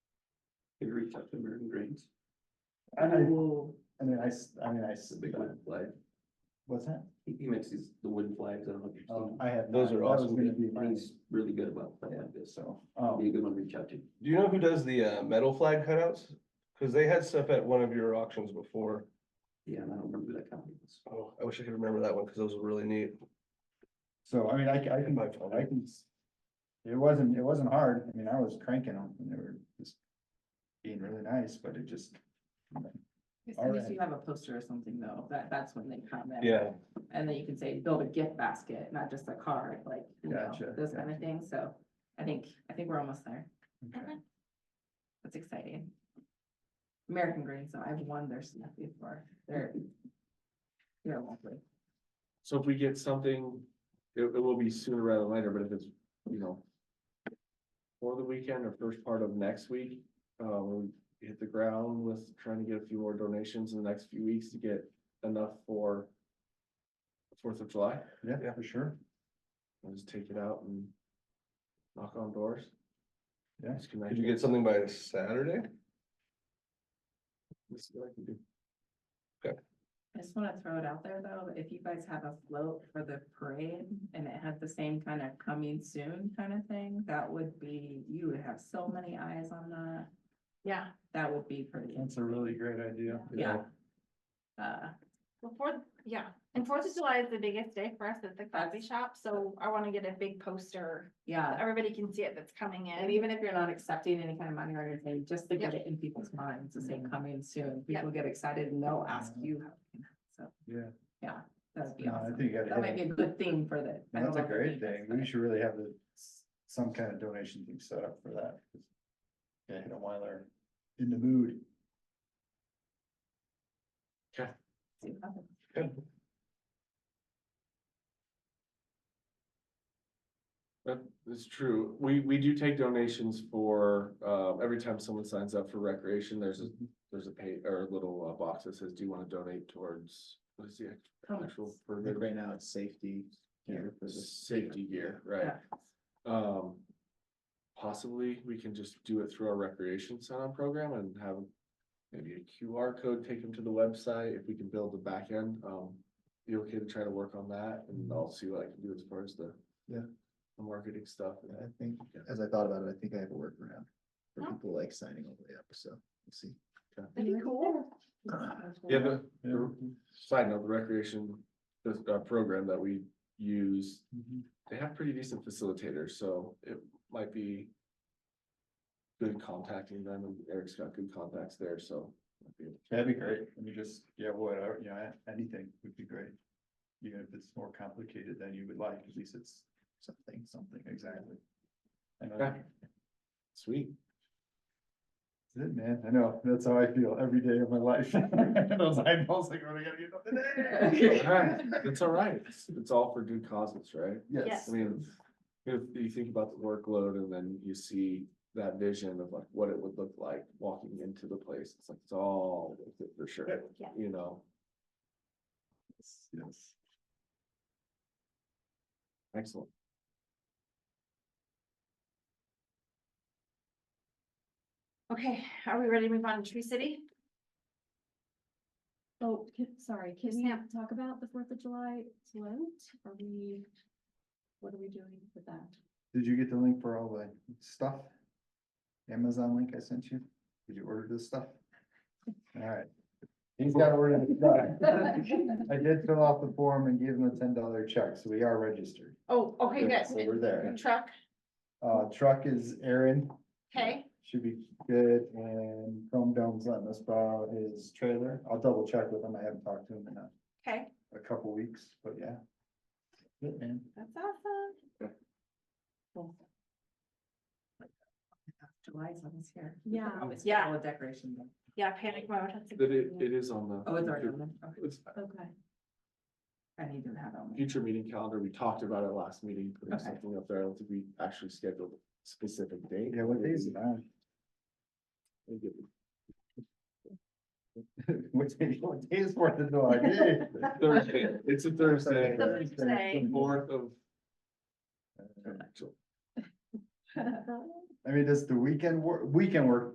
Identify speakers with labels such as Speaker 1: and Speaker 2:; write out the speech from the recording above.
Speaker 1: Can you reach out to American Greens?
Speaker 2: I, I
Speaker 1: will.
Speaker 2: mean, I, s- I mean, I, s-
Speaker 1: It's a big wooden flag.
Speaker 2: what's that?
Speaker 1: He he makes these, the wooden flags, I don't know if you've
Speaker 2: Oh,
Speaker 1: seen.
Speaker 2: I have.
Speaker 3: Those
Speaker 2: not-
Speaker 3: are
Speaker 2: that was
Speaker 3: awesome.
Speaker 2: Gonna be
Speaker 1: them.
Speaker 2: mine,
Speaker 1: He's really good about that, so
Speaker 2: so, oh,
Speaker 1: be a good one to reach out to.
Speaker 3: Do you know who does the uh metal flag cutouts? Cause they had stuff at one of your auctions before.
Speaker 1: Yeah, and I don't remember who that company was.
Speaker 3: Oh, I wish I could remember that one, cause those were really neat.
Speaker 2: so I mean, I, ca- I can,
Speaker 3: If I found
Speaker 2: I
Speaker 3: it.
Speaker 2: can. s- It wasn't, it wasn't hard. I mean, I was cranking them and they were just being really nice, but it just.
Speaker 4: As
Speaker 2: All
Speaker 4: soon as
Speaker 2: right.
Speaker 4: you have a poster or something though, that, that's when they come in.
Speaker 3: Yeah,
Speaker 4: And then you can say, build a gift basket, not just a card, like, you know,
Speaker 2: Gotcha,
Speaker 4: those kind of things. So I think, I think we're almost there.
Speaker 2: okay.
Speaker 4: That's exciting. American Green, so I've won their stuff before. They're, they're lovely.
Speaker 5: So if we get something, it, it will be sooner rather than later, but if it's, you know. For the weekend or first part of next week, uh, we'll hit the ground with trying to get a few more donations in the next few weeks to get enough for. Fourth of July,
Speaker 2: Yeah, yeah, for sure.
Speaker 5: we'll just take it out and knock on doors.
Speaker 2: Yeah.
Speaker 5: Just connect
Speaker 3: could you get
Speaker 5: it.
Speaker 3: something by Saturday?
Speaker 5: Let's see what I can do.
Speaker 4: I just want to throw it out there though, that if you guys have a float for the parade and it had the same kind of coming soon kind of thing, that would be, you would have so many eyes on that. Yeah. That would be pretty.
Speaker 2: That's a really great idea.
Speaker 4: Yeah. Uh,
Speaker 6: Well, Fourth, yeah, and Fourth of July is the biggest day for us at the coffee
Speaker 4: That's-
Speaker 6: shop, so I wanna get a big poster. so
Speaker 4: yeah,
Speaker 6: Everybody can see it that's coming
Speaker 4: and
Speaker 6: in.
Speaker 4: even if you're not accepting any kind of money or anything, just to get it in people's minds, to say
Speaker 2: Mhm.
Speaker 4: coming soon,
Speaker 6: Yep.
Speaker 4: people get excited and they'll ask
Speaker 2: Mhm.
Speaker 4: you. how you can help. So.
Speaker 2: Yeah.
Speaker 4: Yeah, that'd be
Speaker 2: No, I
Speaker 4: awesome.
Speaker 2: think you gotta
Speaker 4: That
Speaker 2: hit
Speaker 4: might be
Speaker 2: it.
Speaker 4: a good thing for the. I don't
Speaker 2: That's a
Speaker 4: know if
Speaker 2: great
Speaker 4: you guys-
Speaker 2: thing. We should really have the, s- some kind of donation thing set up for that. Yeah, hit 'em while they're in the mood.
Speaker 4: see what happens.
Speaker 5: That is true. We, we do take donations for, uh, every time someone signs up for recreation, there's a,
Speaker 3: Mm-hmm.
Speaker 5: there's a pay, or a little uh, box that says, do you want to donate towards, what is the act- actual?
Speaker 4: Helmets.
Speaker 5: program?
Speaker 2: now, it's safety.
Speaker 5: gear Safety gear, right?
Speaker 4: Yeah.
Speaker 5: Um, possibly we can just do it through our recreation sign-on program and have maybe a QR code, take them to the website if we can build the back end. Um, you okay to try to work on that and I'll see what I can do as far as the
Speaker 2: Yeah.
Speaker 5: the marketing stuff. and-
Speaker 2: I think,
Speaker 5: Yeah.
Speaker 2: as I thought about it, I think I have a workaround
Speaker 6: for Oh.
Speaker 2: people like signing all the way up, so we'll see.
Speaker 6: That'd be cool.
Speaker 5: Yeah, the, the, side note, the recreation, the, uh, program that we use,
Speaker 2: Mm-hmm.
Speaker 5: they have pretty decent facilitators, so it might be good contacting them, and Eric's got good contacts there, so. might be able to-
Speaker 2: That'd be great. Let me just, yeah, whatever, you know, a- anything would be great. Even if it's more complicated than you would like, at least it's something, something, exactly. I know.
Speaker 5: Okay. Sweet.
Speaker 2: That's it, man. I know. That's how I feel every day of my life. Those eyeballs like, what I gotta get up today?
Speaker 5: Alright, That's all right. It's- It's all for good causes, right?
Speaker 2: Yes.
Speaker 6: Yes.
Speaker 5: I mean, if you think about the workload and then you see that vision of like what it would look like walking into the place, it's like, it's all worth it for sure,
Speaker 6: Yeah.
Speaker 5: you know?
Speaker 2: Yes.
Speaker 5: Excellent.
Speaker 6: Okay, are we ready to move on to Tree City?
Speaker 7: Oh, can- sorry, can we
Speaker 6: Snap.
Speaker 7: talk about the Fourth of July float? Are we, what are we doing with that?
Speaker 2: Did you get the link for all the stuff? Amazon link I sent you? Did you order this stuff? All right. He's got to order the stuff. I did fill out the form and give him a ten dollar check, so we are registered.
Speaker 6: Oh, okay,
Speaker 2: Yeah, So
Speaker 6: good.
Speaker 2: we're there.
Speaker 6: Truck,
Speaker 2: Uh, truck is Aaron,
Speaker 6: okay,
Speaker 2: should be good, and Chrome Dome's letting us borrow his trailer. I'll double check with him. I haven't talked to him in a,
Speaker 6: okay,
Speaker 2: a couple weeks, but yeah. Good man.
Speaker 6: that's awesome.
Speaker 4: July's almost here. Oh,
Speaker 7: Yeah.
Speaker 4: Always
Speaker 6: Yeah.
Speaker 4: full of decoration. though.
Speaker 6: Yeah, panic mode. that's a
Speaker 5: That
Speaker 6: good
Speaker 5: it,
Speaker 6: idea.
Speaker 5: it is on the.
Speaker 4: Oh, it's already on there. Okay.
Speaker 5: It's
Speaker 7: Okay.
Speaker 4: I need to have it on. my-
Speaker 5: future meeting calendar. We talked about it last meeting, putting
Speaker 4: Okay.
Speaker 5: something up there. I don't think we actually scheduled a specific date.
Speaker 2: Yeah, what day is it on? What day, what day is Fourth of July? Yay.
Speaker 5: Thursday, it's a Thursday,
Speaker 6: The Thursday.
Speaker 5: fourth of
Speaker 2: Uh,
Speaker 5: July.
Speaker 2: I mean, does the weekend work, weekend work